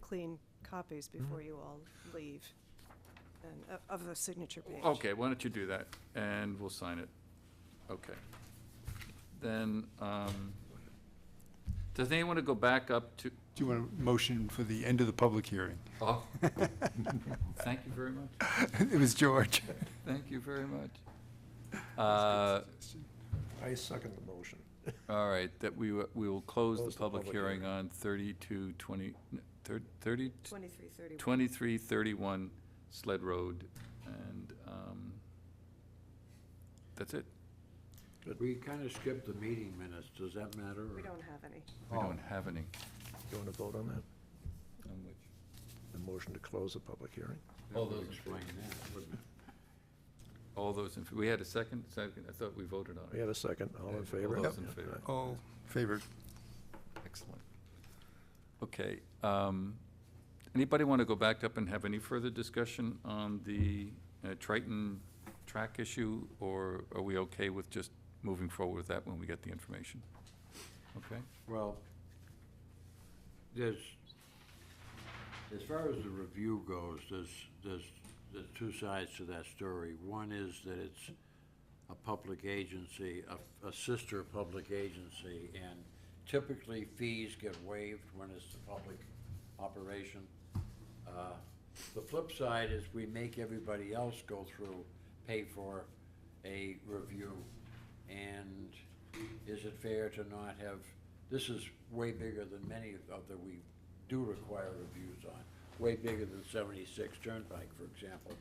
clean copies before you all leave, and, of- of the signature page. Okay, why don't you do that, and we'll sign it. Okay. Then, um, does anyone want to go back up to, Do you want a motion for the end of the public hearing? oh, thank you very much, It was George. thank you very much. Uh, I second the motion. All right, that we, wi- we will close the Close the public public hearing on thirty-two twenty, thir- thirty, Twenty-three thirty-one. twenty-three thirty-one Sled Road, and, um, that's it. We kind of skipped the meeting minutes, does that matter? We or- don't have any. We don't have any. You want to vote on that? on which- The motion to close the public hearing? That would explain that, wouldn't it? All those, in f- we had a second, second, I thought we voted on it. We have a second, all in favor? All those in favor. All favored. Excellent. Okay, um, anybody want to go back up and have any further discussion on the uh, Triton track issue? Or are we okay with just moving forward with that when we get the information? Okay, Well, there's, as far as the review goes, there's, there's, there's two sides to that story. One is that it's a public agency, a, a sister public agency, and typically fees get waived when it's a public operation. Uh, The flip side is we make everybody else go through, pay for a review. And is it fair to not have, this is way bigger than many of that we do require reviews on, way bigger than seventy-six Turnpike, for example.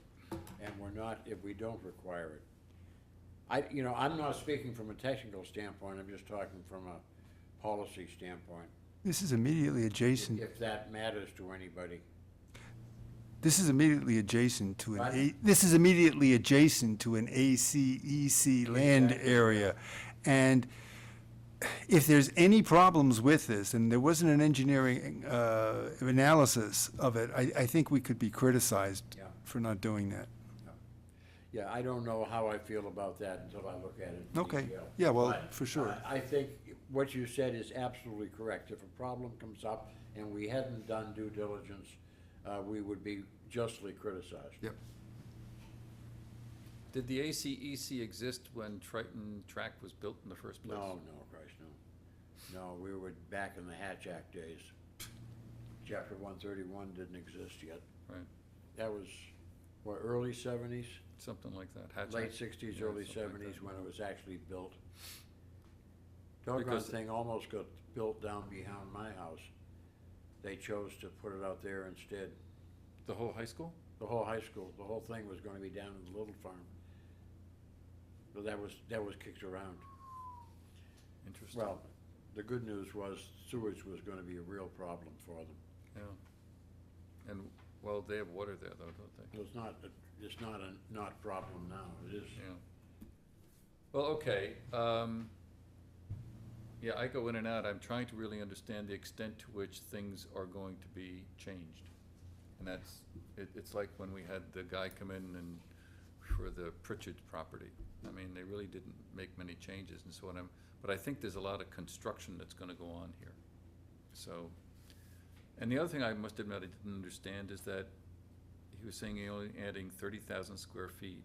And we're not, if we don't require it. I, you know, I'm not speaking from a technical standpoint, I'm just talking from a policy standpoint, This is immediately adjacent, if that matters to anybody. this is immediately adjacent to an Pardon? A, this is immediately adjacent to an ACEC land Exactly. area. And if there's any problems with this, and there wasn't an engineering, uh, analysis of it, I, I think we could be criticized Yeah. for not doing that. Yeah, I don't know how I feel about that until I look at it in Okay. detail. Yeah, well, But for sure. I I think what you said is absolutely correct. If a problem comes up and we hadn't done due diligence, uh, we would be justly criticized. Yep. did the ACEC exist when Triton track was built in the first place? No, no, Christ, no. No, we were back in the Hatch Act days. Chapter one thirty-one didn't exist yet. Right, That was, what, early seventies? something like that. Hatch Late Act. sixties, Yeah, early something like that. seventies, when it was actually built. Doggone Because- thing almost got built down behind my house. They chose to put it out there instead. The whole high school? The whole high school, the whole thing was gonna be down in the Little Farm. But that was, that was kicked around. Interesting. Well, the good news was sewage was gonna be a real problem for them. Yeah. And, well, they have water there though, don't they? It's not, it's not a not problem now, it is. Yeah. Well, okay, um, yeah, I go in and out, I'm trying to really understand the extent to which things are going to be changed. And that's, it, it's like when we had the guy come in and, for the Pritchard property. I mean, they really didn't make many changes and so on, I'm- but I think there's a lot of construction that's gonna go on here. So, and the other thing I must admit I didn't understand is that he was saying he only adding thirty thousand square feet.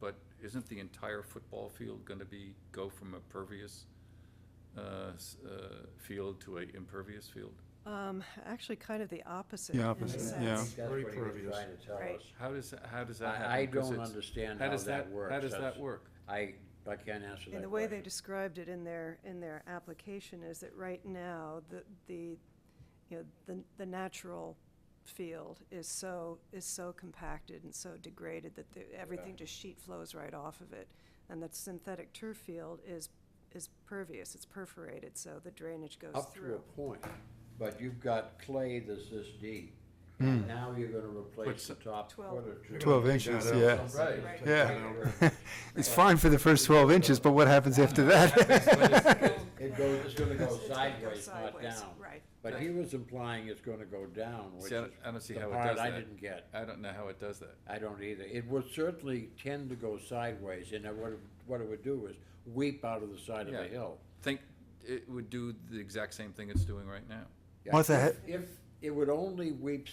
But isn't the entire football field gonna be, go from a pervious, uh, s- uh, field to a impervious field? Um, actually, kind of the opposite. The in a opposite, sense. yeah. That's what he was pervious. trying to tell Right. us. How does, tha- how does that happen? I, I 'Cause don't it's- understand how how does that works. How does that That's- work? I, I can't answer that And the way they question. described it in their, in their application is that right now, the, the, you know, the, the natural field is so, is so compacted and so degraded that the, everything just sheet flows right off of it. And that synthetic turf field is, is pervious, it's perforated, so the drainage goes Up to through. a point, but you've got clay that's this deep, Hmm. and now you're gonna replace the But top foot Twelve. or two. Twelve inches, yeah. Right. Yeah. It's fine for the first 12 inches, but what happens after that? It goes, it's gonna go It's gonna go sideways, not sideways, down. Right. But he was implying it's gonna go down, which See, I is don't, I don't see the how it part does I that. didn't get. I don't know how it does that. I don't either. It would certainly tend to go sideways, and it would- what it would do is weep out of the side of Yeah. a hill. Think, it would do the exact same thing it's doing right now. Yeah, Martha, if- ha- If, it would only weep